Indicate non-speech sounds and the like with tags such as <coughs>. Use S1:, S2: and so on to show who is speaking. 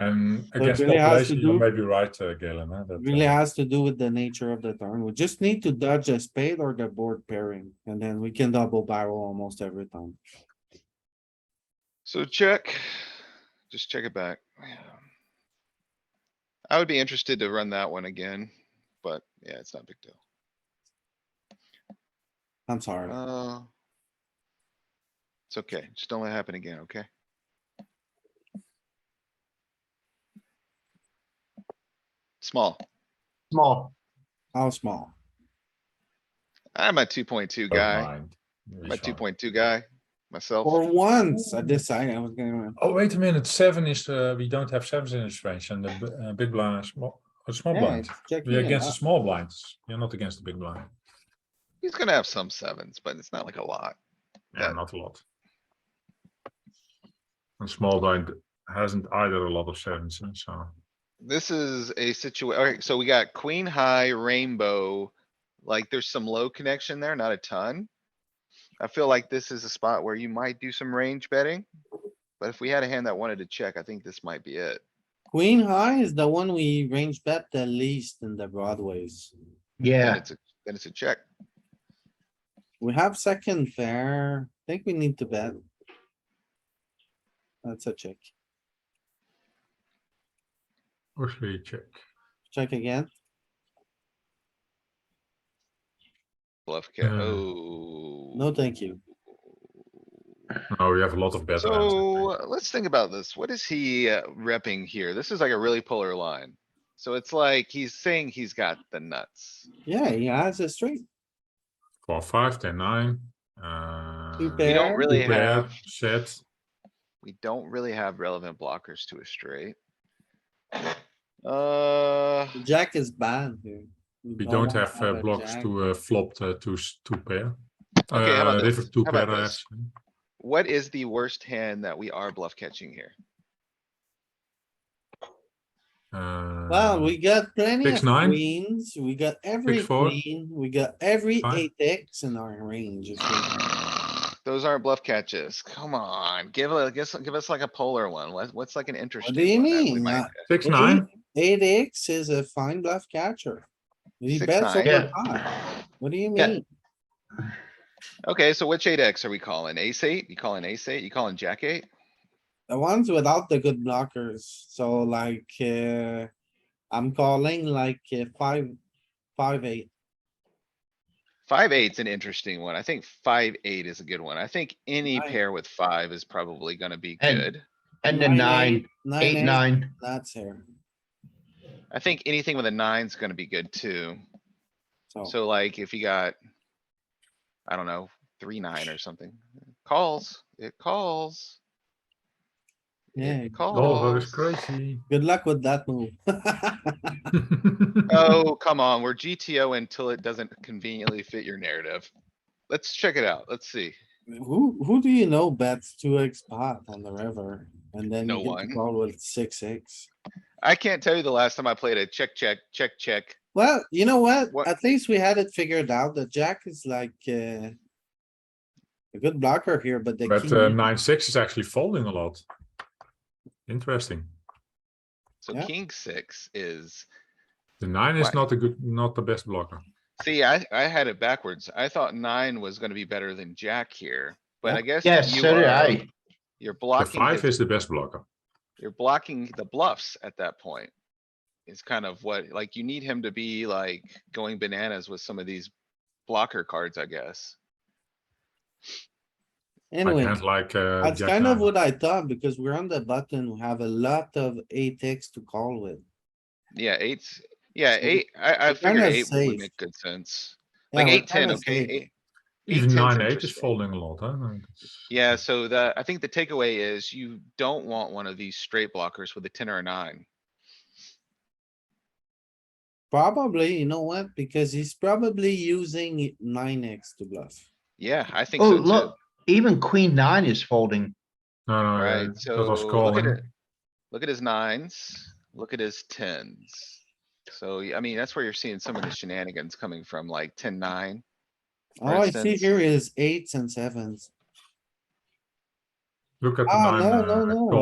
S1: And
S2: it
S1: against
S2: really
S1: Um,
S2: has
S1: population,
S2: to
S1: you
S2: do-
S1: may be right, uh, Galen, huh, that,
S2: Really
S1: uh,
S2: has to do with the nature of the turn. We just need to dodge a spade or the board pairing, and then we can double barrel almost every time.
S3: So check, just check it back. I would be interested to run that one again, but yeah, it's not a big deal.
S2: I'm sorry.
S3: Uh. It's okay, just don't let it happen again, okay? Small,
S4: Small.
S2: How small?
S3: I'm a two point two
S1: don't
S3: guy,
S1: mind.
S3: I'm a
S1: It's
S3: two
S1: fine.
S3: point two guy, myself.
S2: For once, I decided I was gonna,
S1: Oh, wait a minute, seven is, uh, we don't have sevens in this range and the b- uh, big blind is small, a small
S2: yeah,
S1: blind.
S2: it's checking
S1: We're
S2: it
S1: against the
S2: out.
S1: small blinds, you're not against the big blind,
S3: He's gonna have some sevens, but it's not like a lot.
S1: yeah,
S3: Yeah.
S1: not a lot. And small blind hasn't either a lot of sevens, huh, so.
S3: This is a situa- alright, so we got queen high rainbow. Like there's some low connection there, not a ton. I feel like this is a spot where you might do some range betting. But if we had a hand that wanted to check, I think this might be it.
S2: Queen high is the one we range bet the least in the broadways.
S3: Then
S4: Yeah,
S3: it's a, then it's a check.
S2: We have second pair. I think we need to bet. That's a check.
S1: Actually, check,
S2: Check again.
S3: Bluff ca-
S1: Uh,
S3: oh.
S2: No, thank you.
S1: no, we have a lot of better hands, I
S3: So
S1: think.
S3: uh, let's think about this. What is he uh, repping here? This is like a really polar line. So it's like he's saying he's got the nuts.
S2: Yeah, he has a straight.
S1: four, five, ten, nine, uh.
S2: Two
S3: We
S2: pair.
S3: don't really
S1: two pair,
S3: have.
S1: Set,
S3: We don't really have relevant blockers to a
S2: <coughs>
S3: straight. Uh,
S2: The Jack is banned here.
S1: we don't
S2: wanna
S1: have uh,
S2: a
S1: blocks
S2: jack.
S1: to uh, flop uh, to s- two pair.
S3: Okay, how about
S1: Uh, river
S3: this?
S1: two
S3: How about
S1: pair,
S3: this?
S1: actually.
S3: what is the worst hand that we are bluff catching here?
S1: Uh,
S2: Well, Ah, we got plenty
S1: Six,
S2: of
S1: nine?
S2: queens. We got every
S1: four?
S2: queen. We got every
S1: Five?
S2: eight X in our range. if we-
S3: Those aren't bluff catches. Come on, give us, give us, give us like a polar one. What, what's like an interesting?
S2: you
S3: one that we
S2: mean? Uh,
S3: might catch?
S1: Six, nine,
S2: Eight X is a fine bluff catcher. He
S3: Six,
S2: bets
S3: nine.
S2: over five. What do you
S3: Yeah.
S2: mean?
S3: Okay, so which eight X are we calling? Ace eight? You calling ace eight? You calling jack eight?
S2: The ones without the good blockers, so like, uh, I'm calling like uh, five, five, eight.
S3: Five eight's an interesting one. I think five eight is a good one. I think any
S2: Nine.
S3: pair with five is probably gonna be
S4: And-
S3: good.
S4: and then nine, eight,
S2: eight,
S4: nine.
S2: That's here,
S3: I think anything with a nine's gonna be good too.
S2: so
S3: So like if you got. I don't know, three, nine or something. Calls, it calls.
S2: yeah,
S3: It
S1: oh, that is
S3: calls.
S2: <laughs>
S1: crazy.
S2: good luck with that move. <laughs>
S1: uh,
S3: Oh, come on, we're GTO until it doesn't conveniently fit your narrative. Let's check it out. Let's see.
S2: Who, who do you know bets two X pot on the river? And then
S3: No
S2: you get
S3: one.
S2: to call with six, X.
S3: I can't tell you the last time I played a check, check, check, check.
S2: Well, you know what?
S3: What-
S2: At least we had it figured out. The jack is like, uh, a good blocker here, but the
S1: But uh,
S2: king,
S1: nine, six is actually folding a lot. Interesting.
S3: So
S2: Yeah.
S3: king six is
S1: The nine is
S3: Right.
S1: not a good, not the best blocker.
S3: See, I, I had it backwards. I thought nine was gonna be better than jack here, but
S2: Yeah.
S3: I guess.
S4: Yes,
S3: you
S4: so did
S3: are-
S4: I.
S3: You're
S1: The
S3: blocking,
S1: five
S3: the-
S1: is the best blocker.
S3: you're blocking the bluffs at that point. It's kind of what, like, you need him to be like going bananas with some of these blocker cards, I guess.
S1: Like
S2: anyway.
S1: hands like uh,
S2: That's
S1: jack
S2: kind of
S1: nine.
S2: what I thought, because we're on the button, we have a lot of eight X to call with.
S3: Yeah, eights, yeah,
S2: So
S3: eight, I, I
S2: you're
S3: figured
S2: kinda
S3: eight would
S2: safe.
S3: make good sense.
S2: Yeah,
S3: Like
S2: we're
S3: eight, ten,
S2: kinda
S3: okay?
S2: safe.
S3: eight-
S1: Even
S3: 8-10's
S1: nine, eight is
S3: interesting.
S1: folding a lot, huh? And it's-
S3: Yeah, so the, I think the takeaway is you don't want one of these straight blockers with a ten or a nine.
S2: Probably, you know what? Because he's probably using nine X to bluff.
S3: Yeah, I think
S4: Oh,
S3: so too.
S4: look, even queen nine is folding.
S1: No, no, uh,
S3: Right, so
S1: that was
S3: look at
S1: calling.
S3: it. Look at his nines, look at his tens. So, y- I mean, that's where you're seeing some of the shenanigans coming from, like ten, nine. for
S2: All I see
S3: instance.
S2: here is eights and sevens.
S1: Look at the
S2: Ah,
S1: nine.
S2: no, no,
S1: uh,
S2: no.